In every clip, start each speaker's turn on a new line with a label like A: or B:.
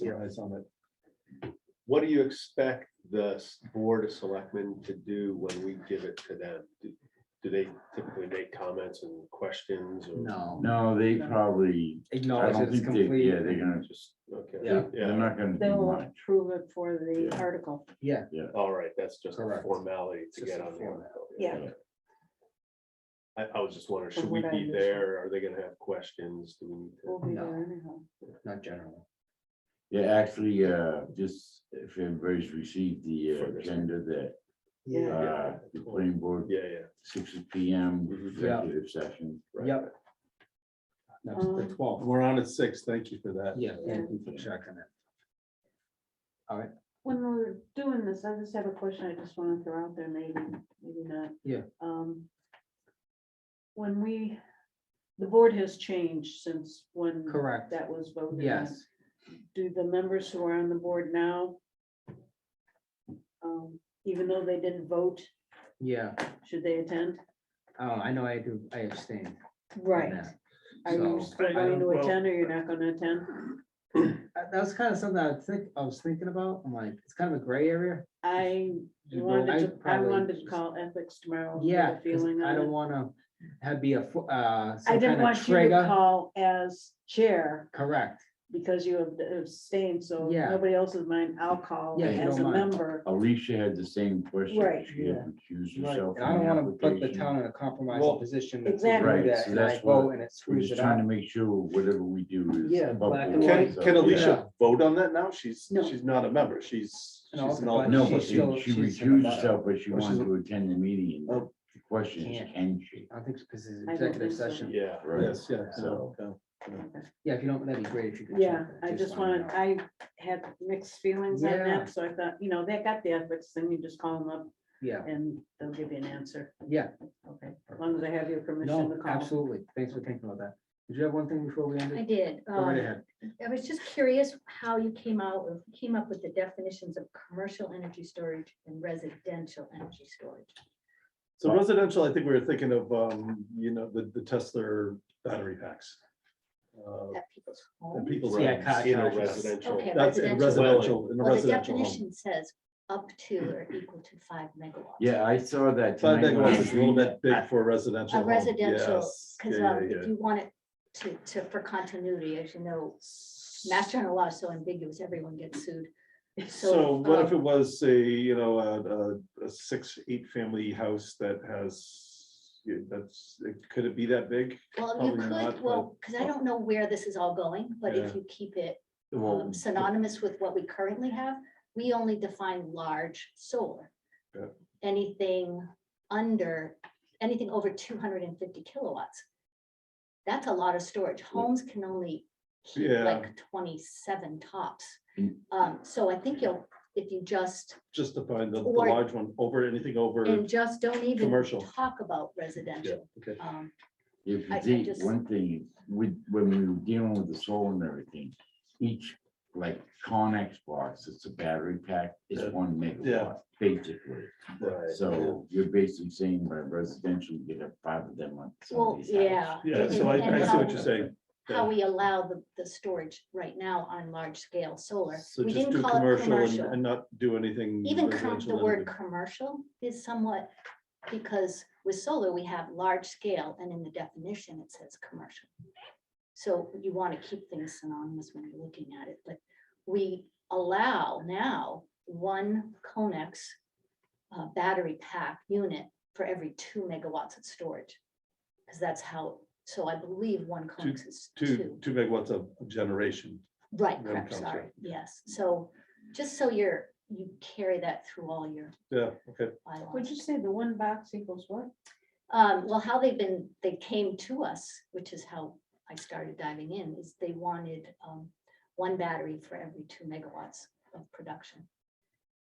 A: eyes on it. What do you expect the s- board of selectmen to do when we give it to them? Do- Do they typically make comments and questions? or-
B: No.
C: No, they probably, I
B: Acknowledge
C: don't
B: it's
C: think they,
B: complete.
C: yeah, they're gonna just,
A: Okay.
B: Yeah.
C: they're not gonna
D: They
C: do
D: will
C: much.
D: approve it for the
C: Yeah.
D: article.
B: Yeah.
A: All right, that's just a
B: Correct.
A: formality
B: It's
A: to
B: just
A: get
B: a
A: on. the
B: formality.
A: article.
D: Yeah.
C: Yeah.
A: I, I was just wondering, should
D: From
A: we
D: what I
A: be
D: understand.
A: there? Are they gonna have questions? Do we need
D: We'll
A: to?
D: be
B: No.
D: there anyhow.
B: Not general.
C: Yeah, actually, uh, just if everybody's received the uh,
A: For this.
C: agenda that,
D: Yeah.
C: uh, the planning board,
A: Yeah, yeah.
C: six P M,
A: Mhm.
B: Yeah.
C: executive session.
A: right.
B: Yep. That's the
D: Um,
B: twelfth.
E: We're on at six. Thank you for that.
B: Yeah, thank you for checking it.
D: When we're doing this, I just have a question I just want to throw out there, maybe, maybe not.
B: Yeah.
D: Um. When we, the board has changed since when.
B: Correct.
D: That was voted. on.
B: Yes,
D: Do the members who are on the board now? Um, even though they didn't vote,
B: yeah.
D: should they attend?
B: Um, I know I do, I abstained. from
D: Right.
B: that.
D: Are you
B: So-
D: still going to attend or you're not gonna attend?
B: Uh, That was kind of something I think, I was thinking about. I'm like, it's kind of a gray area.
D: I
B: You know, I
D: wanted to, I
B: probably
D: wanted to
B: just-
D: call ethics tomorrow. and get a
B: Yeah, 'cause
D: Feeling
B: I
D: on it.
B: don't wanna have be a, fo- uh,
D: I
B: some
D: didn't
B: kind of
D: want you to
B: trigger.
D: call as chair
B: Correct.
D: because you have abstained, so
B: Yeah.
D: nobody else is mine. I'll call
B: Yeah,
C: if you
D: as a
B: don't mind.
D: member.
C: Alicia had the same question.
D: Right.
C: She had recused
E: Right.
C: herself.
B: And I
C: from
B: don't wanna put the
C: application.
B: town in a compromising
E: Well,
B: position. if we do
D: Exactly.
C: Right,
B: that
C: so
B: And I
C: that's what-
B: vote and it
C: We're
B: screws
C: just
B: it
C: trying to
B: up.
C: make sure whatever we do is.
B: Yeah,
C: above
B: black
C: board.
B: and
E: Can,
B: white.
C: So-
E: can Alicia
B: Yeah.
E: vote on that now? She's,
D: No.
E: she's not a member. She's, she's
B: No,
E: an
B: but
C: No,
E: alternate.
C: but
B: she's
C: she,
B: still-
C: she
B: she's-
C: recused herself, but she
E: Oh, she's
C: wanted
E: a-
C: to attend the meeting. and
E: Oh.
C: The question is,
B: Can't.
C: can she?
B: I think because it's
D: I don't
B: executive
D: think so.
B: session.
A: Yeah.
C: Right.
E: Yes, yeah, so. okay.
B: Yeah, if you don't, that'd be great if you could. check
D: Yeah,
B: that,
D: I just
B: wanna
D: wanted,
B: know.
D: I had mixed feelings on
B: Yeah.
D: that, so I thought, you know, they got the ethics, then you just call them up
B: Yeah,
D: and they'll give you an answer.
B: yeah,
D: Okay, as long as I have your permission to
B: no,
D: call.
B: absolutely. Thanks for thinking about that. Did you have one thing before we
F: I
B: ended?
F: did.
B: Go right
F: um,
B: ahead.
F: I was just curious how you came out, with- came up with the definitions of commercial energy storage and residential energy storage.
E: So residential, I think we were thinking of, um, you know, the, the Tesla battery packs. Uh,
F: At people's
E: And
F: home.
E: people's.
B: Yeah,
E: homes.
B: cottage
A: In a
B: houses.
A: residential.
F: Okay,
E: That's in residential, in a
F: Well, the
E: residential home.
F: definition says up to or equal to five megawatts.
C: Yeah, I saw that.
E: Five
C: tonight when I
E: megawatts is a little
C: was reading
E: bit big for a residential.
F: A
E: home.
F: residential,
E: Yes.
F: because
E: Yeah, yeah,
F: um, if
E: yeah.
F: you want it to, to, for continuity, as you know, mass general law is so ambiguous, everyone gets sued.
E: So what if
F: um,
E: it was a, you know, a, a, a six, eight family house that has, yeah, that's, it- could it be that big?
F: Well, you
E: probably not,
F: could,
E: but-
F: well, because I don't know where this is all going, but if
E: Yeah.
F: you keep it
C: Well,
F: um, synonymous with what we currently have, we only define large solar.
E: Yeah.
F: Anything under, anything over two hundred and fifty kilowatts. That's a lot of storage. Homes can only keep
E: Yeah.
F: like twenty-seven tops.
C: Mm.
F: Um, so I think you'll, if you just,
E: Just to find the, the
F: Or-
E: large one, over anything over,
F: and just don't even
E: commercial.
F: talk about residential.
E: okay.
F: Um,
C: If
F: I- I
C: you think,
F: just-
C: one thing, with, when we were dealing with the solar and everything, each, like, Connex box, it's a battery pack,
E: Yeah.
C: it's one
E: Yeah.
C: megawatt, basically.
A: Right.
C: So you're basically saying by residential, you get a five of them on. some of
F: well,
C: these houses.
F: yeah.
E: Yeah,
F: and-
E: so I,
F: and
E: I see
F: how-
E: what you're saying.
F: how we allow the, the storage right now on large scale solar.
E: So
F: We
E: just do
F: didn't call it
E: commercial and-
F: commercial.
E: and not do anything.
F: Even com- the
E: residential
F: word
E: anything.
F: commercial is somewhat, because with solar, we have large scale and in the definition, it says commercial. So you want to keep things synonymous when you're looking at it, but we allow now one Conex uh, battery pack unit for every two megawatts of storage. Because that's how, so I believe one Conex is
E: Two, two megawatts of generation.
F: Right,
E: Then
F: correct,
E: comes
F: sorry,
E: it.
F: yes, so, just so you're, you carry that through all your
E: Yeah, okay.
D: Would
F: bylaws.
D: you say the one box equals what?
F: Um, well, how they've been, they came to us, which is how I started diving in, is they wanted, um, one battery for every two megawatts of production.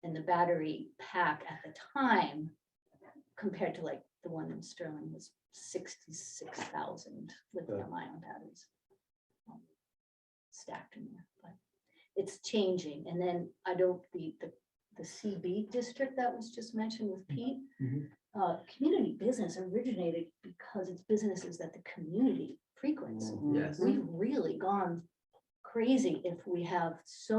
F: And the battery pack at the time, compared to like the one in Sterling was sixty-six thousand lithium ion batteries. um, Stacked in there, but it's changing. And then I don't, the, the, the CB district that was just mentioned with Pete.
B: Mhm.
F: Uh, community business originated because it's businesses that the
D: Mm.
F: community frequents.
B: Yes.
F: We've really gone crazy if we have so